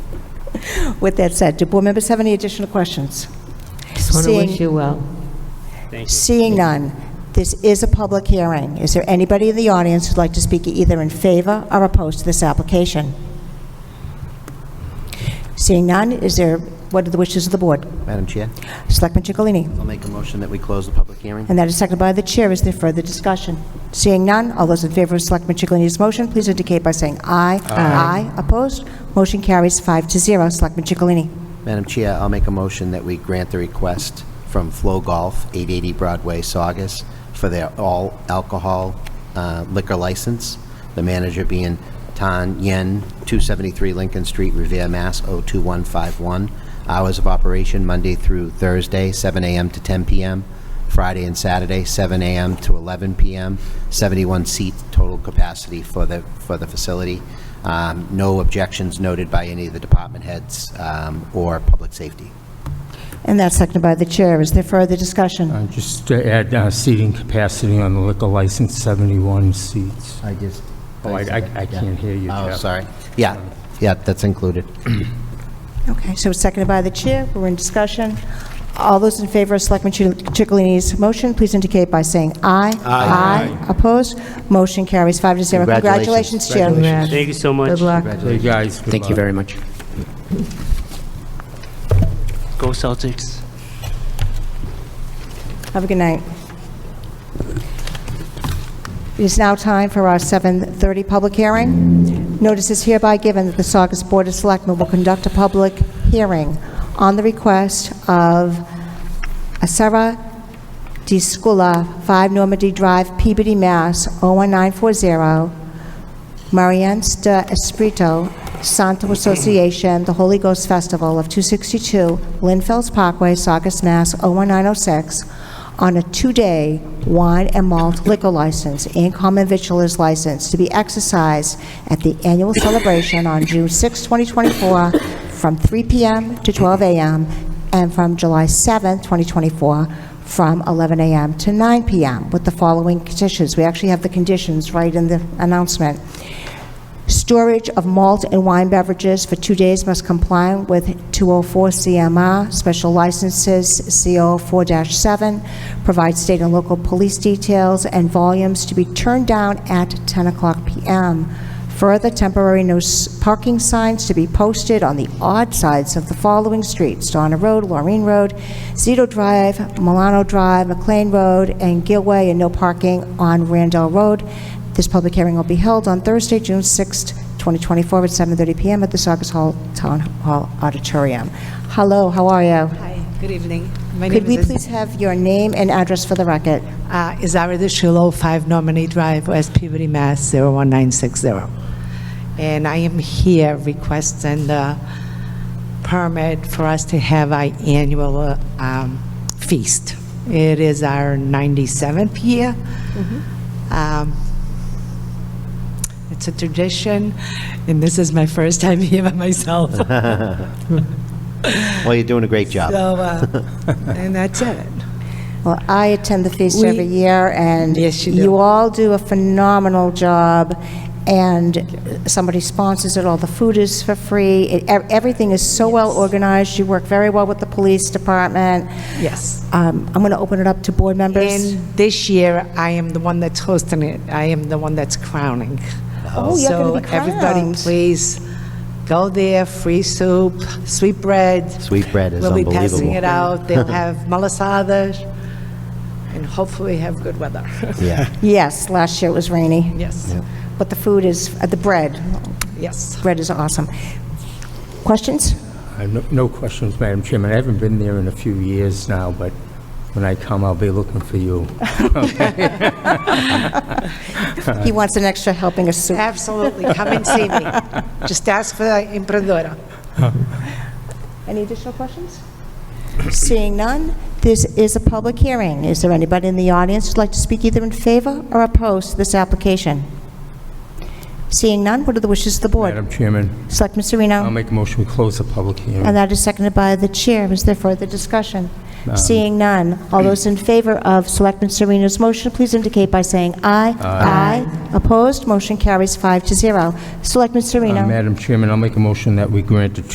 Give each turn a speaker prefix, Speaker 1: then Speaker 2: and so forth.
Speaker 1: With that said, do board members have any additional questions?
Speaker 2: I just want to
Speaker 1: Seeing-
Speaker 2: wish you well.
Speaker 1: Seeing none, this is a public hearing. Is there anybody in the audience who'd like to speak either in favor or opposed to this application? Seeing none, is there, what are the wishes of the board?
Speaker 3: Madam Chair,
Speaker 1: Selectman Chicalini.
Speaker 3: I'll make a motion that we close the public hearing.
Speaker 1: And that is seconded by the chair. Is there further discussion? Seeing none, all those in favor of Selectman Chicalini's motion, please indicate by saying aye. Aye. Opposed? Motion carries five to zero. Selectman Chicalini.
Speaker 3: Madam Chair, I'll make a motion that we grant the request from Flow Golf, 880 Broadway, Saugus, for their all-alcohol uh, liquor license, the manager being Tan Yen, 273 Lincoln Street, Revere, Mass. 02151. Hours of operation, Monday through Thursday, 7 a.m. to 10 p.m., Friday and Saturday, 7 a.m. to 11 p.m., 71 seat total capacity for the, for the facility. Um, No objections noted by any of the department heads um, or public safety.
Speaker 1: And that's seconded by the chair. Is there further discussion?
Speaker 4: Uh, Just to add uh, seating capacity on the liquor license, 71 seats.
Speaker 3: I just.
Speaker 4: Oh, I- I- I can't hear you,
Speaker 3: Oh,
Speaker 4: Jeff.
Speaker 3: sorry. Yeah, yeah, that's included.
Speaker 1: Okay, so it's seconded by the chair. We're in discussion. All those in favor of Selectman Chi- Chicalini's motion, please indicate by saying aye. Aye. Opposed? Motion carries five to zero.
Speaker 3: Congratulations.
Speaker 1: Congratulations, Chair.
Speaker 2: Congrats.
Speaker 5: Thank you so much.
Speaker 2: Good luck.
Speaker 4: Hey, guys. good
Speaker 6: Thank you
Speaker 4: luck.
Speaker 6: very much.
Speaker 5: Go Celtics.
Speaker 1: Have a good night. It is now time for our 7:30 public hearing. Notice is hereby given that the Saugus Board of Selectmen will conduct a public hearing on the request of Asara Di Scula, 5 Normandy Drive, Peabody, Mass. 01940, Mariansta Espirito Santo Association, the Holy Ghost Festival of 262 Linfield's Parkway, Saugus, Mass. 01906, on a two-day wine and malt liquor license and common victualer's license to be exercised at the annual celebration on June 6, 2024, from 3 p.m. to 12 a.m., and from July 7, 2024, from 11 a.m. to 9 p.m. with the following conditions. We actually have the conditions right in the announcement. Storage of malt and wine beverages for two days must comply with 204 CMR, special licenses CO 4-7, provide state and local police details and volumes to be turned down at 10 o'clock PM. Further, temporary no s- parking signs to be posted on the odd sides of the following streets: Donna Road, Laureen Road, Zito Drive, Milano Drive, McLean Road, and Gilway, and no parking on Randall Road. This public hearing will be held on Thursday, June 6th, 2024, at 7:30 PM at the Saugus Hall Town Hall Auditorium. Hello, how are you?
Speaker 7: Hi, good evening. My
Speaker 1: Could we
Speaker 7: name is
Speaker 1: please have your name and address for the record?
Speaker 7: uh, Izara DeShilo, 5 Nominee Drive, West Peabody, Mass. 01960. And I am here requesting the permit for us to have our annual uh, um, feast. It is our 97th year.
Speaker 1: Mm-hmm.
Speaker 7: Um, It's a tradition, and this is my first time here by myself.
Speaker 3: Well, you're doing a great job.
Speaker 7: So, uh, and that's it.
Speaker 1: Well, I attend the feast
Speaker 7: We-
Speaker 1: every year, and
Speaker 7: Yes, you do.
Speaker 1: all do a phenomenal job, and somebody sponsors it, all the food is for free, It- ev- everything is so well organized, you work very well with the police department.
Speaker 7: Yes.
Speaker 1: Um, I'm going to open it up to board members.
Speaker 7: And this year, I am the one that's hosting it. I am the one that's crowning.
Speaker 1: Oh, you're gonna be
Speaker 7: So everybody,
Speaker 1: crowned.
Speaker 7: please, go there, free soup, sweetbread.
Speaker 3: Sweet bread is
Speaker 7: We'll be passing it
Speaker 3: unbelievable.
Speaker 7: out. They'll have malasada, and hopefully have good weather.
Speaker 3: Yeah,
Speaker 1: Yes, last year it was rainy,
Speaker 7: Yes,
Speaker 1: but the food is, uh, the bread,
Speaker 7: yes.
Speaker 1: bread is awesome. Questions?
Speaker 4: Uh, no- No questions, Madam Chairman. I haven't been there in a few years now, but when I come, I'll be looking for you.
Speaker 1: He wants an extra helping of soup.
Speaker 7: Absolutely, come and see me. Just ask for the emprendedora.
Speaker 1: Any additional questions? Seeing none, this is a public hearing. Is there anybody in the audience who'd like to speak either in favor or opposed to this application? Seeing none, what are the wishes of the board?
Speaker 4: Madam Um, Chairman,
Speaker 1: Selectman
Speaker 4: I'll
Speaker 1: Sereno?
Speaker 4: make a motion to close the public hearing.
Speaker 1: And that is seconded by the chair. Is there further discussion? Seeing none, all those in favor of Selectman Sereno's motion, please indicate by saying aye. Aye. Opposed, motion carries five to zero. Selectman
Speaker 4: Uh,
Speaker 1: Sereno?
Speaker 4: Madam Chairman, I'll make a motion that we grant a